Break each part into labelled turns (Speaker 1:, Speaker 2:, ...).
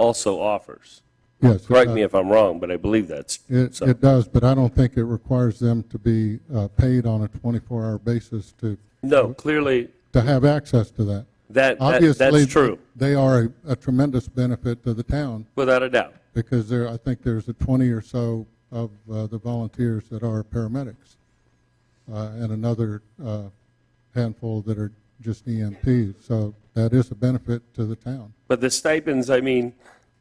Speaker 1: also offers.
Speaker 2: Yes. it
Speaker 1: Correct
Speaker 2: does.
Speaker 1: me if I'm wrong, but I believe that's
Speaker 2: It,
Speaker 1: so.
Speaker 2: it does, but I don't think it requires them to be uh, paid on a 24-hour basis to,
Speaker 1: No, clearly,
Speaker 2: to have access to that.
Speaker 1: that, that-
Speaker 2: Obviously,
Speaker 1: that's true,
Speaker 2: They are a- a tremendous benefit to the town
Speaker 1: without a doubt.
Speaker 2: because there, I think there's a 20 or so of uh, the volunteers that are paramedics uh, and another uh, handful that are just EMTs. So that is a benefit to the town.
Speaker 1: But the stipends, I mean,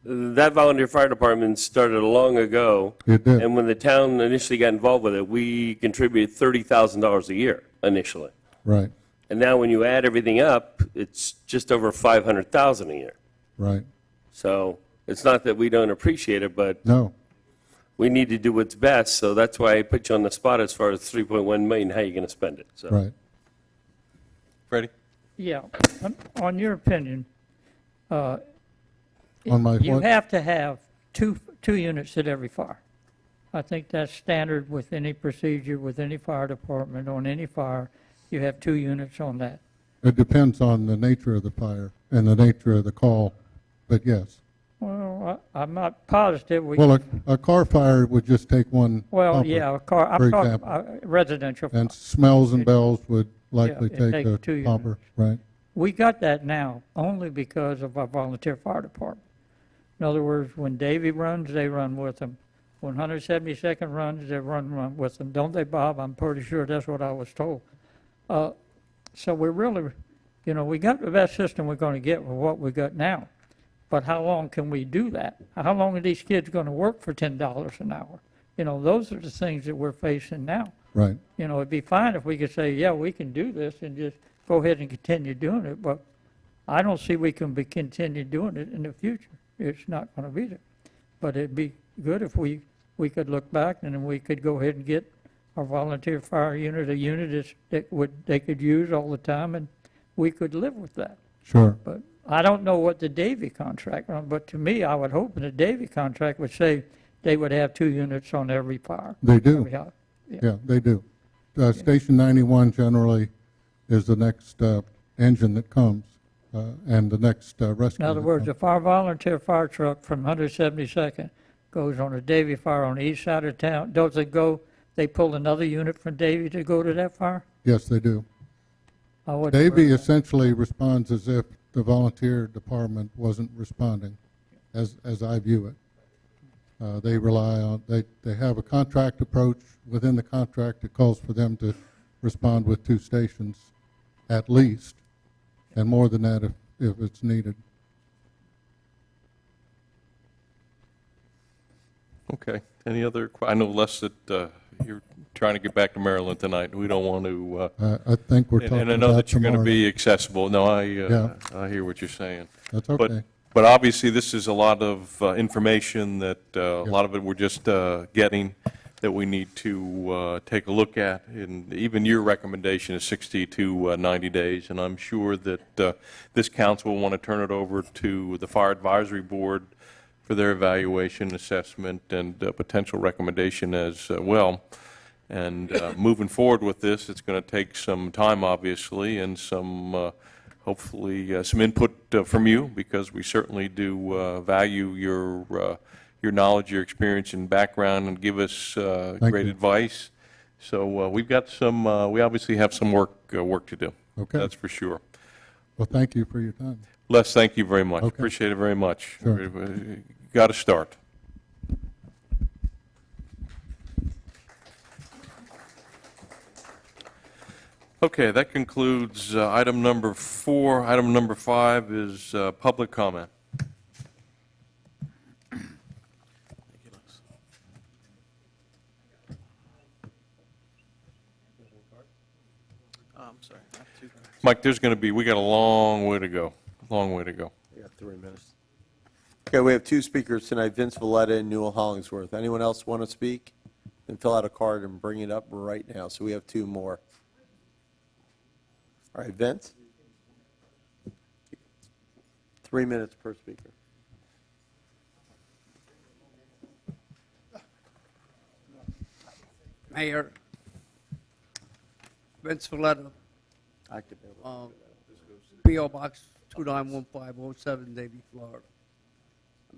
Speaker 1: that volunteer fire department started long ago.
Speaker 2: It did.
Speaker 1: And when the town initially got involved with it, we contributed $30,000 a year initially.
Speaker 2: Right,
Speaker 1: And now when you add everything up, it's just over 500,000 a year.
Speaker 2: right.
Speaker 1: So it's not that we don't appreciate it, but
Speaker 2: No,
Speaker 1: we need to do what's best, so that's why I put you on the spot as far as 3.1 million, how you going to spend it, so.
Speaker 2: right.
Speaker 3: Freddie?
Speaker 4: Yeah, on- on your opinion, uh,
Speaker 2: On my
Speaker 4: you
Speaker 2: what?
Speaker 4: have to have two, two units at every fire. I think that's standard with any procedure, with any fire department, on any fire, you have two units on that.
Speaker 2: It depends on the nature of the fire and the nature of the call, but yes.
Speaker 4: Well, I- I'm not positive, we,
Speaker 2: Well, a, a car fire would just take one
Speaker 4: well,
Speaker 2: pumper,
Speaker 4: yeah, a car,
Speaker 2: for
Speaker 4: I'm talking
Speaker 2: example.
Speaker 4: uh, residential.
Speaker 2: And smells and bells would likely
Speaker 4: it'd
Speaker 2: take
Speaker 4: take two
Speaker 2: a
Speaker 4: units.
Speaker 2: pumper, right?
Speaker 4: We got that now only because of our volunteer fire department. In other words, when Davy runs, they run with him. When 172nd runs, they run, run with them. Don't they, Bob? I'm pretty sure that's what I was told. Uh, So we really, you know, we got the best system we're going to get with what we got now. But how long can we do that? How long are these kids going to work for $10 an hour? You know, those are the things that we're facing now.
Speaker 2: Right,
Speaker 4: You know, it'd be fine if we could say, yeah, we can do this and just go ahead and continue doing it, but I don't see we can be, continue doing it in the future. It's not gonna be there. But it'd be good if we, we could look back and then we could go ahead and get our volunteer fire unit, a unit that's- that would, they could use all the time, and we could live with that.
Speaker 2: sure.
Speaker 4: But I don't know what the Davy contract, but to me, I would hope that the Davy contract would say they would have two units on every fire.
Speaker 2: They do,
Speaker 4: every house.
Speaker 2: yeah, they do. Uh, Station 91 generally is the next uh, engine that comes uh, and the next uh, rescue.
Speaker 4: In other
Speaker 2: that
Speaker 4: words,
Speaker 2: comes.
Speaker 4: if our volunteer fire truck from 172nd goes on a Davy fire on the east side of town, does it go, they pull another unit from Davy to go to that fire?
Speaker 2: Yes, they do.
Speaker 4: I wouldn't worry
Speaker 2: Davy
Speaker 4: about
Speaker 2: essentially responds as if the volunteer department wasn't responding, as, as I view it. Uh, They rely on, they, they have a contract approach. Within the contract, it calls for them to respond with two stations at least, and more than that if, if it's needed.
Speaker 3: Okay. Any other, que- I know less that uh, you're trying to get back to Maryland tonight. We don't want to, uh,
Speaker 2: I, I think we're
Speaker 3: and
Speaker 2: talking
Speaker 3: and I know
Speaker 2: about
Speaker 3: that you're going to
Speaker 2: tomorrow.
Speaker 3: be accessible. No, I,
Speaker 2: Yeah.
Speaker 3: uh, I hear what you're saying.
Speaker 2: That's
Speaker 3: But,
Speaker 2: okay.
Speaker 3: but obviously, this is a lot of uh, information that, uh, a lot of it we're just uh, getting, that we need to uh, take a look at, and even your recommendation is 60 to uh, 90 days, and I'm sure that uh, this council will want to turn it over to the Fire Advisory Board for their evaluation, assessment, and uh, potential recommendation as uh, well. And uh, moving forward with this, it's going to take some time, obviously, and some, uh, hopefully, uh, some input uh, from you, because we certainly do uh, value your, uh, your knowledge, your experience and background, and give us uh,
Speaker 2: Thank
Speaker 3: great
Speaker 2: you.
Speaker 3: advice. So uh, we've got some, uh, we obviously have some work, uh, work to do.
Speaker 2: Okay.
Speaker 3: That's for sure.
Speaker 2: Well, thank you for your time.
Speaker 3: Les, thank you very much.
Speaker 2: Okay.
Speaker 3: Appreciate it very much.
Speaker 2: Sure.
Speaker 3: Got to start. Okay, that concludes uh, item number four. Item number five is uh, public comment.
Speaker 5: Oh, I'm sorry. I have two minutes.
Speaker 3: Mike, there's going to be, we got a long way to go, long way to go.
Speaker 5: You got three minutes. Okay, we have two speakers tonight, Vince Valletta and Newell Hollingsworth. Anyone else want to speak? Then fill out a card and bring it up right now, so we have two more. All right, Vince? Three minutes per speaker.
Speaker 6: Mayor, Vince uh, Valletta,
Speaker 5: I could be able-
Speaker 6: um, P.O. Box 291507, Davie, Florida.